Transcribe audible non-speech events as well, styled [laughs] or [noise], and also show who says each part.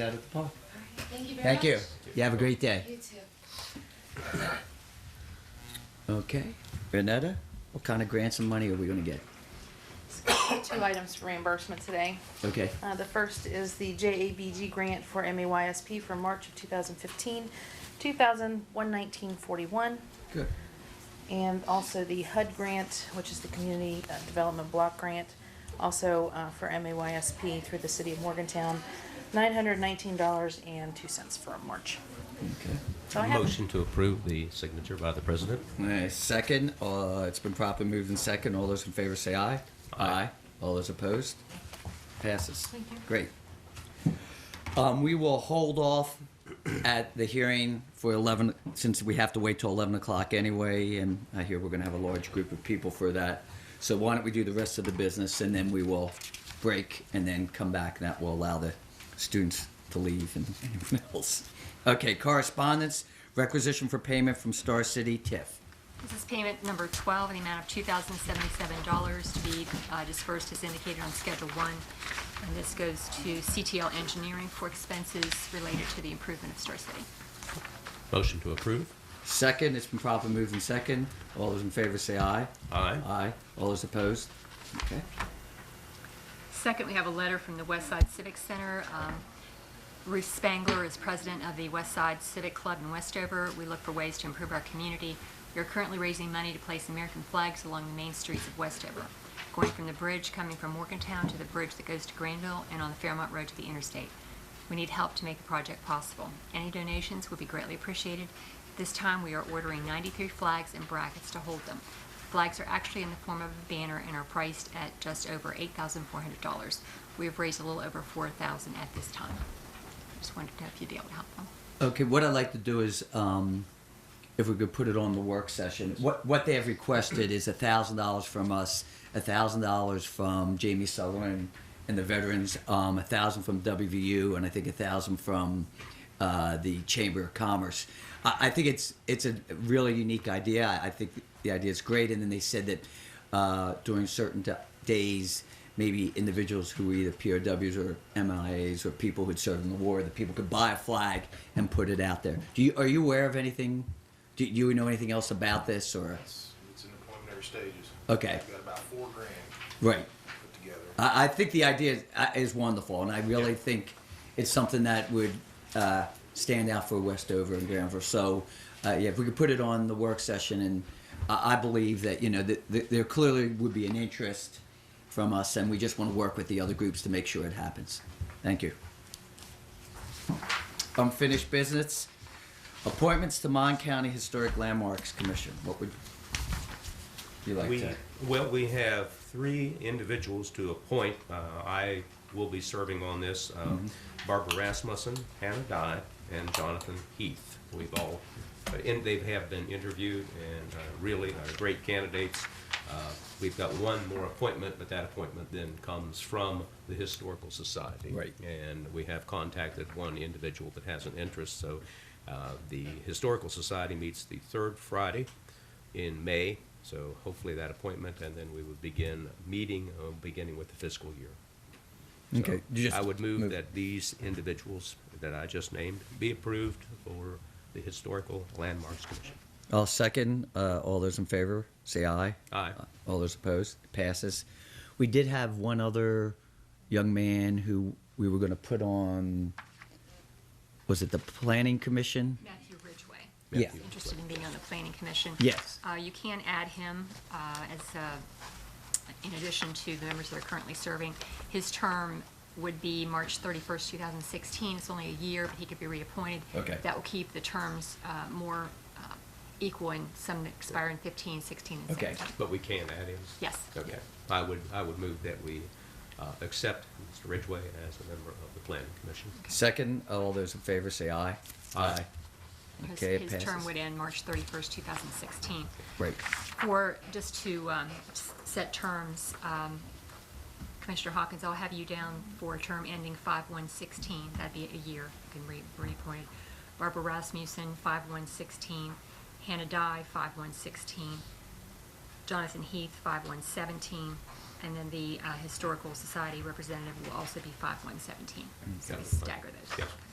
Speaker 1: out at the park.
Speaker 2: Thank you very
Speaker 1: Thank
Speaker 2: much.
Speaker 1: you. You have a great day.
Speaker 2: You too.
Speaker 1: Okay. Renetta, what kind of grants and money are we going to get?
Speaker 3: Two items for reimbursement today.
Speaker 1: Okay.
Speaker 3: Uh, The first is the JABG grant for MAYSP for March of 2015, 2,119.41.
Speaker 1: Good.
Speaker 3: And also the HUD grant, which is the Community uh, Development Block Grant, also uh, for MAYSP through the City of Morgantown, $919.02 for March.
Speaker 1: Okay.
Speaker 3: So I have
Speaker 4: Motion to approve the signature by the president.
Speaker 1: All right, second, uh, it's been properly moved in second. All those in favor say aye.
Speaker 4: Aye.
Speaker 1: All those opposed? Passes.
Speaker 3: Thank you.
Speaker 1: Great. Um, we will hold off at the hearing for eleven, since we have to wait till eleven o'clock anyway, and I hear we're gonna have a large group of people for that. So why don't we do the rest of the business and then we will break and then come back and that will allow the students to leave and [laughs] anyone else. Okay, correspondence, requisition for payment from Star City TIF.
Speaker 5: This is payment number 12 in the amount of $2,077 to be uh, dispersed as indicated on Schedule 1. And this goes to CTL Engineering for expenses related to the improvement of Star City.
Speaker 4: Motion to approve.
Speaker 1: Second, it's been properly moved and second. All those in favor say aye.
Speaker 4: Aye.
Speaker 1: Aye. All those opposed? Okay.
Speaker 5: Second, we have a letter from the West Side Civic Center. Um, Ruth Spangler is president of the West Side Civic Club in Westover. We look for ways to improve our community. We are currently raising money to place American flags along the main streets of Westover, going from the bridge coming from Morgantown to the bridge that goes to Granville and on the Fairmont Road to the interstate. We need help to make the project possible. Any donations would be greatly appreciated. This time, we are ordering 93 flags and brackets to hold them. Flags are actually in the form of a banner and are priced at just over $8,400. We have raised a little over 4000 at this time. Just wanted to know if you'd be able to help them.
Speaker 1: Okay, what I'd like to do is, um, if we could put it on the work session, what, what they have requested is a thousand dollars from us, a thousand dollars from Jamie Sutherland and the veterans, um, a thousand from WVU, and I think a thousand from, uh, the Chamber of Commerce. I, I think it's, it's a really unique idea. I, I think the idea is great, and then they said that, uh, during certain da- days, maybe individuals who were either POWs or MIAs or people who'd served in the war, that people could buy a flag and put it out there. Do you, are you aware of anything? Do you know anything else about this or?
Speaker 6: It's, it's in the preliminary stages.
Speaker 1: Okay.
Speaker 6: We've got about four grand
Speaker 1: Right.
Speaker 6: put together.
Speaker 1: I, I think the idea is, uh, is wonderful, and I really think it's something that would uh, stand out for Westover and Granville. So, uh, yeah, if we could put it on the work session, and I, I believe that you know that th- there clearly would be an interest from us, and we just want to work with the other groups to make sure it happens. Thank you. Unfinished business. Appointments to Mon County Historic Landmarks Commission. What would you like
Speaker 4: We,
Speaker 1: to?
Speaker 4: well, we have three individuals to appoint. Uh, I will be serving on this. uh,
Speaker 1: Mm-hmm.
Speaker 4: Barbara Rasmussen, Hannah Dye, and Jonathan Heath. We've all, uh, and they have been interviewed and uh, really are great candidates. Uh, We've got one more appointment, but that appointment then comes from the Historical Society.
Speaker 1: Right.
Speaker 4: And we have contacted one individual that has an interest, so uh, the Historical Society meets the third Friday in May, so hopefully that appointment, and then we would begin meeting, uh, beginning with the fiscal year. So
Speaker 1: Okay, you just
Speaker 4: I would
Speaker 1: move.
Speaker 4: move that these individuals that I just named be approved for the Historical Landmarks Commission.
Speaker 1: I'll second. Uh, all those in favor, say aye. Uh,
Speaker 4: Aye.
Speaker 1: All those opposed, passes. We did have one other young man who we were going to put on. Was it the planning commission?
Speaker 5: Matthew Ridgway.
Speaker 1: Yeah.
Speaker 5: is Interested in being on the planning commission.
Speaker 1: Yes.
Speaker 5: Uh, You can add him uh, as, uh, in addition to the members that are currently serving. His term would be March 31st, 2016. It's only a year, but he could be reappointed.
Speaker 1: Okay.
Speaker 5: That will keep the terms uh, more uh, equal and some that expire in 15, 16, and
Speaker 1: Okay.
Speaker 5: 17.
Speaker 4: But we can add him?
Speaker 5: Yes.
Speaker 4: Okay. I would, I would move that we uh, accept Mr. Ridgway as a member of the Planning Commission.
Speaker 1: Second. All those in favor, say aye.
Speaker 4: Aye.
Speaker 5: His-
Speaker 1: Okay, it
Speaker 5: His term
Speaker 1: passes.
Speaker 5: would end March 31st, 2016.
Speaker 1: Right.
Speaker 5: For, just to um, s- set terms, um, Commissioner Hawkins, I'll have you down for a term ending 5/116. That'd be a year, you can re- reappoint. Barbara Rasmussen, 5/116. Hannah Dye, 5/116. Jonathan Heath, 5/117. And then the uh, Historical Society representative will also be 5117.
Speaker 4: Mm-hmm.
Speaker 5: So we
Speaker 4: Got it.
Speaker 5: stagger those.
Speaker 4: Yes.